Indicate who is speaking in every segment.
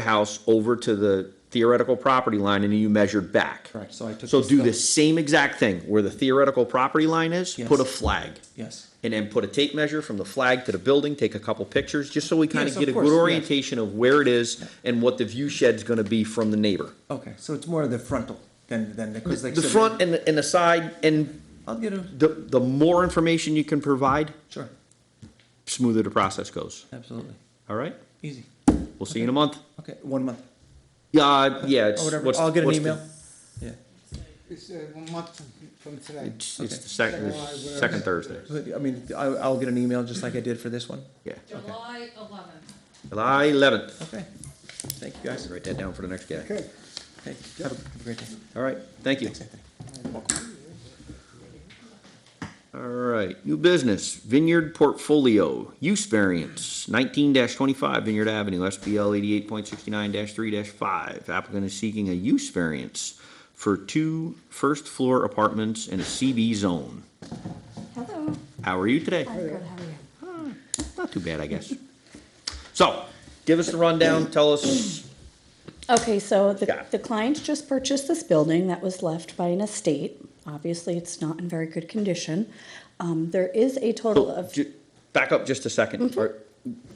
Speaker 1: the house over to the theoretical property line and you measured back.
Speaker 2: Correct, so I took.
Speaker 1: So do
Speaker 2: down.
Speaker 1: the same exact thing where the theoretical property line is, put a
Speaker 2: Yes.
Speaker 1: flag.
Speaker 2: Yes,
Speaker 1: And then put a tape measure from the flag to the building, take a couple pictures, just so we kind
Speaker 2: Yes,
Speaker 1: of
Speaker 2: of
Speaker 1: get a
Speaker 2: course,
Speaker 1: good
Speaker 2: yes.
Speaker 1: orientation of where it is and what the view shed's gonna be from the neighbor.
Speaker 2: okay, so it's more of the frontal than, than, because like.
Speaker 1: The
Speaker 2: I said,
Speaker 1: front and, the- and the side, and
Speaker 2: I'll get a,
Speaker 1: the, the more information you can provide,
Speaker 2: sure,
Speaker 1: smoother the process goes,
Speaker 2: absolutely,
Speaker 1: all right?
Speaker 2: easy,
Speaker 1: We'll see you in a month.
Speaker 2: okay, one month,
Speaker 1: Yeah, uh, yeah, it's.
Speaker 2: or whatever,
Speaker 1: what's-
Speaker 2: I'll get an
Speaker 1: what's the-
Speaker 2: email, yeah,
Speaker 3: It's uh, one month from today.
Speaker 1: It's it's the second, second Thursday,
Speaker 2: But, I mean, I, I'll get an email just like I did for this one,
Speaker 1: yeah.
Speaker 4: July eleventh.
Speaker 1: July eleventh.
Speaker 2: okay, thank you guys,
Speaker 1: Write that down for the next guy.
Speaker 3: Okay.
Speaker 2: okay, have a have a great day.
Speaker 1: All right, thank you.
Speaker 2: Thanks, Anthony.
Speaker 1: All right, new business, Vineyard Portfolio, use variance, nineteen twenty-five Vineyard Avenue, SBL eighty-eight point sixty-nine three five. Applicant is seeking a use variance for two first-floor apartments in a CB zone.
Speaker 5: Hello.
Speaker 1: How are you today?
Speaker 5: I'm good. How are you?
Speaker 1: Not too bad, I guess. So, give us the rundown, tell us,
Speaker 5: Okay, so
Speaker 1: Yeah.
Speaker 5: the, the client just purchased this building that was left by an estate. Obviously, it's not in very good condition. Um, there is a total
Speaker 1: so,
Speaker 5: of. Mm-hmm.
Speaker 1: ju- back up just a second, or,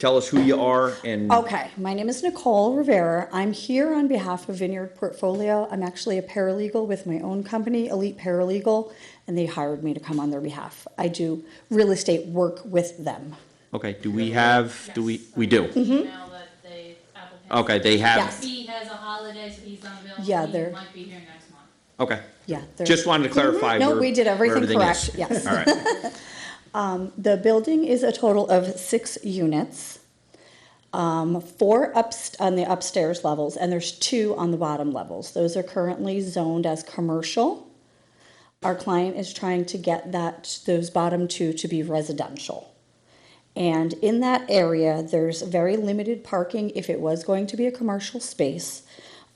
Speaker 1: tell us who you are and.
Speaker 5: Okay, my name is Nicole Rivera. I'm here on behalf of Vineyard Portfolio. I'm actually a paralegal with my own company, Elite Paralegal, and they hired me to come on their behalf. I do real estate work with them.
Speaker 1: Okay, do we have, do we, we do?
Speaker 4: Now that they, applicants-
Speaker 1: Okay, they have,
Speaker 5: Mm-hmm. Yes.
Speaker 4: He has a holiday, so he's unavailable.
Speaker 5: Yeah,
Speaker 4: He
Speaker 5: they're-
Speaker 4: might be here next month.
Speaker 1: okay.
Speaker 5: Yeah. they're- Mm-hmm.
Speaker 1: Just wanted to clarify.
Speaker 5: No,
Speaker 1: where-
Speaker 5: we did
Speaker 1: where
Speaker 5: everything
Speaker 1: everything is.
Speaker 5: correct, yes.
Speaker 1: All right,
Speaker 5: The building is a total of six units, um, four ups, on the upstairs levels, and there's two on the bottom levels. Those are currently zoned as commercial. Our client is trying to get that, those bottom two to be residential. And in that area, there's very limited parking. If it was going to be a commercial space,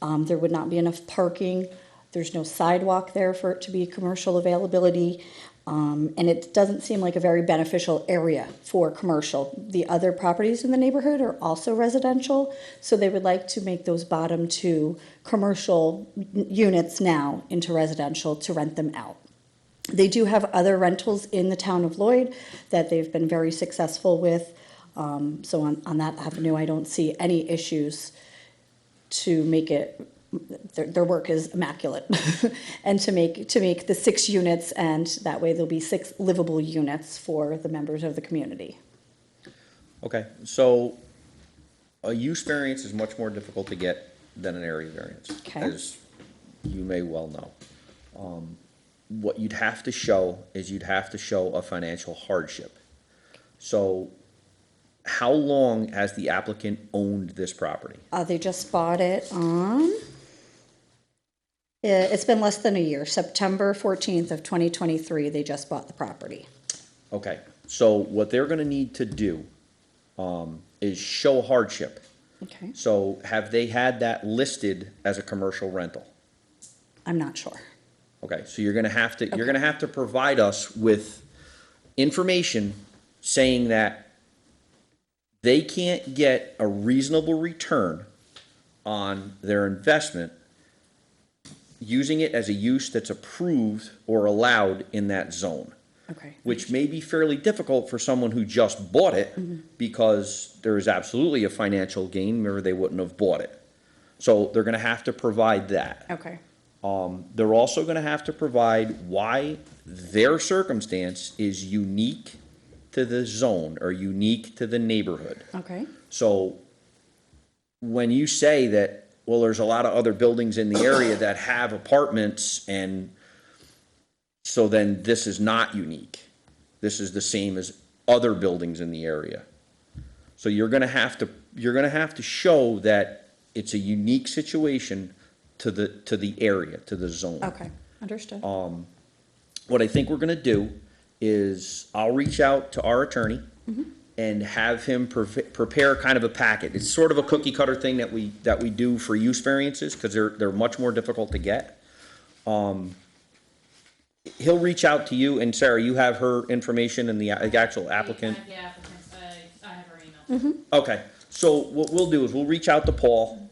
Speaker 5: um, there would not be enough parking. There's no sidewalk there for it to be commercial availability. Um, and it doesn't seem like a very beneficial area for commercial. The other properties in the neighborhood are also residential, so they would like to make those bottom two commercial n- units now into residential to rent them out. They do have other rentals in the town of Lloyd that they've been very successful with. Um, so on, on that avenue, I don't see any issues to make it, their, their work is immaculate. and to make, to make the six units, and that way there'll be six livable units for the members of the community.
Speaker 1: okay, so a use variance is much more difficult to get than an area variance.
Speaker 5: Okay.
Speaker 1: As you may well know. Um, What you'd have to show is you'd have to show a financial hardship. So how long has the applicant owned this property?
Speaker 5: Uh, they just bought it on, Yeah, it's been less than a year, September 14th of 2023, they just bought the property.
Speaker 1: Okay, so what they're gonna need to do, um, is show hardship.
Speaker 5: Okay,
Speaker 1: So have they had that listed as a commercial rental?
Speaker 5: I'm not sure.
Speaker 1: Okay, so you're gonna have to, you're gonna have to provide us with information saying that they can't get a reasonable return on their investment using it as a use that's approved or allowed in that zone.
Speaker 5: Okay.
Speaker 1: which may be fairly difficult for someone who just bought it because there is absolutely a financial gain or they wouldn't have bought it. So they're gonna have to provide that.
Speaker 5: Okay.
Speaker 1: Um, they're also gonna have to provide why their circumstance is unique to the zone or unique to the neighborhood.
Speaker 5: Okay.
Speaker 1: So when you say that, well, there's a lot of other buildings in the area that have apartments and so then this is not unique. This is the same as other buildings in the area. So you're gonna have to, you're gonna have to show that it's a unique situation to the, to the area, to the zone
Speaker 5: Okay. Understood.
Speaker 1: what I think we're gonna do is I'll reach out to our attorney and have him pref- prepare kind of a packet. It's sort of a cookie cutter thing that we, that we do for use variances, cause they're, they're much more difficult to get. Um, he'll reach out to you and Sarah, you have her information and the a- actual applicant.
Speaker 4: Yeah, applicants, I, I have her email.
Speaker 1: Okay, so what we'll do is we'll reach out to Paul